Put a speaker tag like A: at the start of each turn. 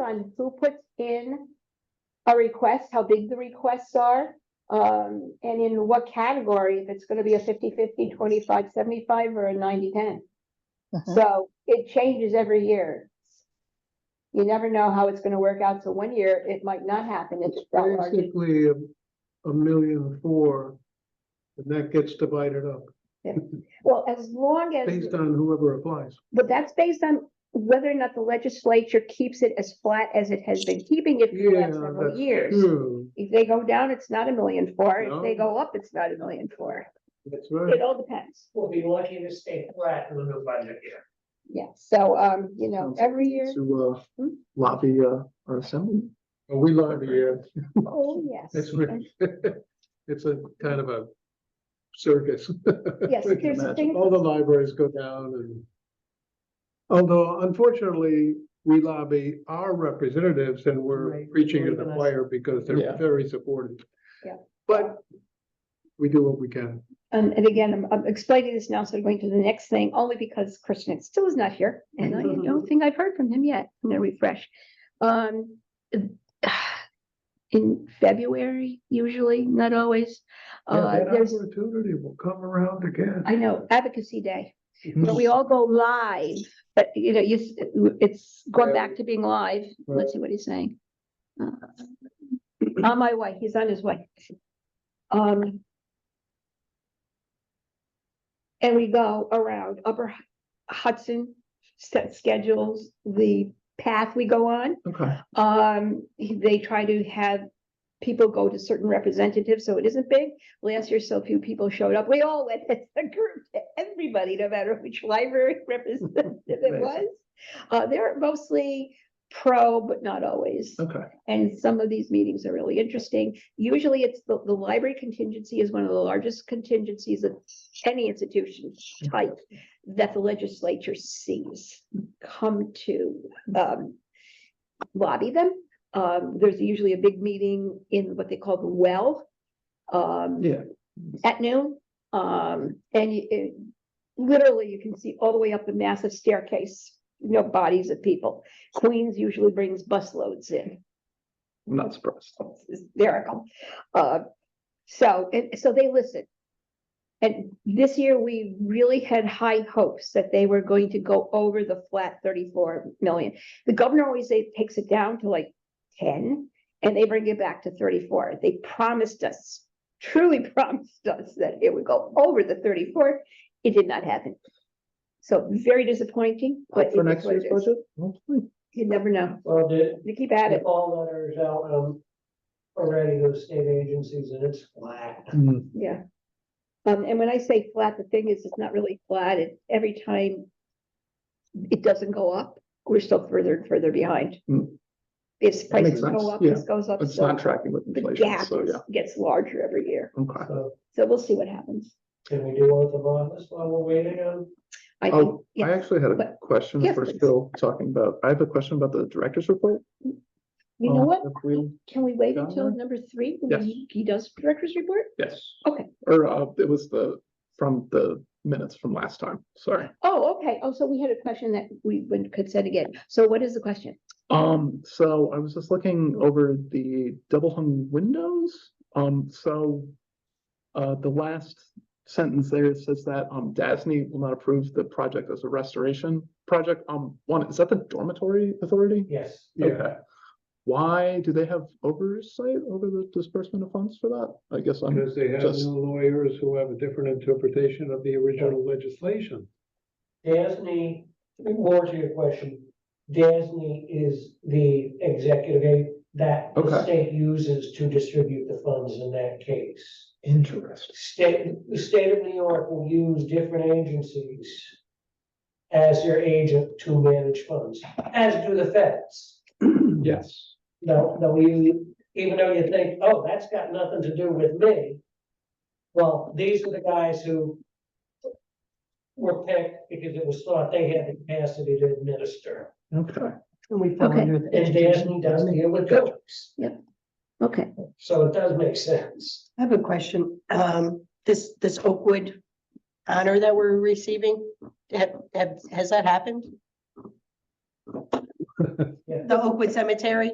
A: on who puts in a request, how big the requests are, um, and in what category, if it's gonna be a 50-50, 25-75, or a 90-10.
B: Mhm.
A: So it changes every year. You never know how it's gonna work out, so one year it might not happen, it's.
C: Basically, a a million four. And that gets divided up
A: Well, as long as.
C: based on whoever applies.
A: But that's based on whether or not the legislature keeps it as flat as it has been keeping it for the
C: Yeah,
A: last several
C: that's
A: years.
C: true.
A: If they go down, it's not a million four. If they
C: No.
A: go up, it's not a million four.
C: That's
A: It
C: right.
A: all depends.
D: We'll be lucky to stay flat in the new budget year.
A: Yeah, so, um, you know,
E: Sounds
A: every year,
E: to uh,
A: Hmm?
E: lobby uh, our assembly.
C: We love you.
A: oh, yes.
C: It's, re- it's a kind of a circus.
A: Yes,
C: We can
A: there's a
C: imagine.
A: thing-
C: All the libraries go down and. Although unfortunately, we lobby our representatives and we're
D: Right,
C: preaching to the
D: organize.
C: choir because
E: Yeah.
C: they're very supportive.
A: Yeah.
C: But we do what we can.
A: Um, and again, I'm, I'm explaining this now, so I'm going to the next thing, only because Christian still is not here, and I don't think I've heard from him yet, I'm gonna refresh. Um, in February, usually, not always, uh,
C: Yeah, that
A: there's,
C: Opportunity will come around again.
A: I know, Advocacy Day, where we all go live, but, you know, you, s- it's going back to being live, let's see what he's saying. Uh, On my way, he's on his way. Um. And we go around Upper Hudson, set schedules, the path we go on.
E: Okay.
A: Um, he- they try to have people go to certain representatives, so it isn't big. Last year, so few people showed up. We all went as a group, everybody, no matter which library representative it
E: Amazing.
A: was. Uh, they're mostly pro, but not always.
E: Okay.
A: And some of these meetings are really interesting. Usually it's the, the library contingency is one of the largest contingencies of any institution type that the legislature sees come to, um, lobby them. Um, there's usually a big meeting in what they call the well. Um,
E: Yeah.
A: at noon. Um, and you- it- literally you can see all the way up the massive staircase, you know, bodies of people. Queens usually brings busloads in
E: I'm not surprised.
A: it's hysterical. Uh, so, and so they listen. And this year, we really had high hopes that they were going to go over the flat thirty-four million. The governor always say, takes it down to like ten, and they bring it back to thirty-four. They promised us, truly promised us that it would go over the thirty-four. It did not happen. So very disappointing, but
E: Up
A: it
E: for
A: is
E: next
A: what it
E: year's
A: is.
E: budget? Hopefully.
A: You never know.
D: Well, did,
A: They keep at
D: the
A: it.
D: call letters out, um, already those state agencies and it's flat.
A: Hmm. Yeah. Um, and when I say flat, the thing is, it's not really flat. It, every time it doesn't go up, we're still further and further behind.
E: Mm.
A: If
E: That
A: prices
E: makes
A: go
E: sense,
A: up,
E: yeah.
A: this goes up.
E: It's
A: so
E: not tracking with
A: The
E: inflation,
A: gap
E: so
A: is-
E: yeah.
A: gets larger every year.
E: Okay.
D: So
A: So we'll see what happens.
D: can we do oath of office while we're waiting on?
A: I think,
E: Oh, I
A: yeah,
E: actually had a
A: but-
E: question
A: Yes,
E: if we're
A: please.
E: still talking about, I have a question about the director's report.
A: you know
E: Um,
A: what?
E: if we-
A: Can we wait
E: Done
A: until
E: that?
A: number three? when
E: Yes.
A: he- He does director's report?
E: Yes.
A: Okay.
E: Or uh, it was the, from the minutes from last time, sorry.
A: Oh, okay. Oh, so we had a question that we would- could set again. So what is the question?
E: Um, so I was just looking over the double hung windows. Um, so uh, the last sentence there says that um DASNY will not approve the project as a restoration project. Um, one, is that the dormitory authority?
D: Yes.
C: Yeah,
E: Okay. Why do they have oversight over the disbursement of funds for that? I guess I'm,
C: because they have
E: Just-
C: no lawyers who have a different interpretation of the original legislation.
D: DASNY, more to your question, DASNY is the executive aid that the
E: Okay.
D: state uses to distribute the funds in that case.
E: interested.
D: State, the state of New York will use different agencies as their agent to manage funds, as do the feds.
E: Yes.
D: No, no, you, even though you think, oh, that's got nothing to do with me. Well, these are the guys who were picked because it was thought they had the capacity to administer.
E: Okay.
F: We fell
A: Okay.
F: under the
D: And Daphne
F: education.
D: does
F: department.
D: deal with those,
A: Okay.
D: so it does make sense.
F: I have a question. Um, this, this Oakwood honor that we're receiving, have, have, has that happened? the Oakwood Cemetery.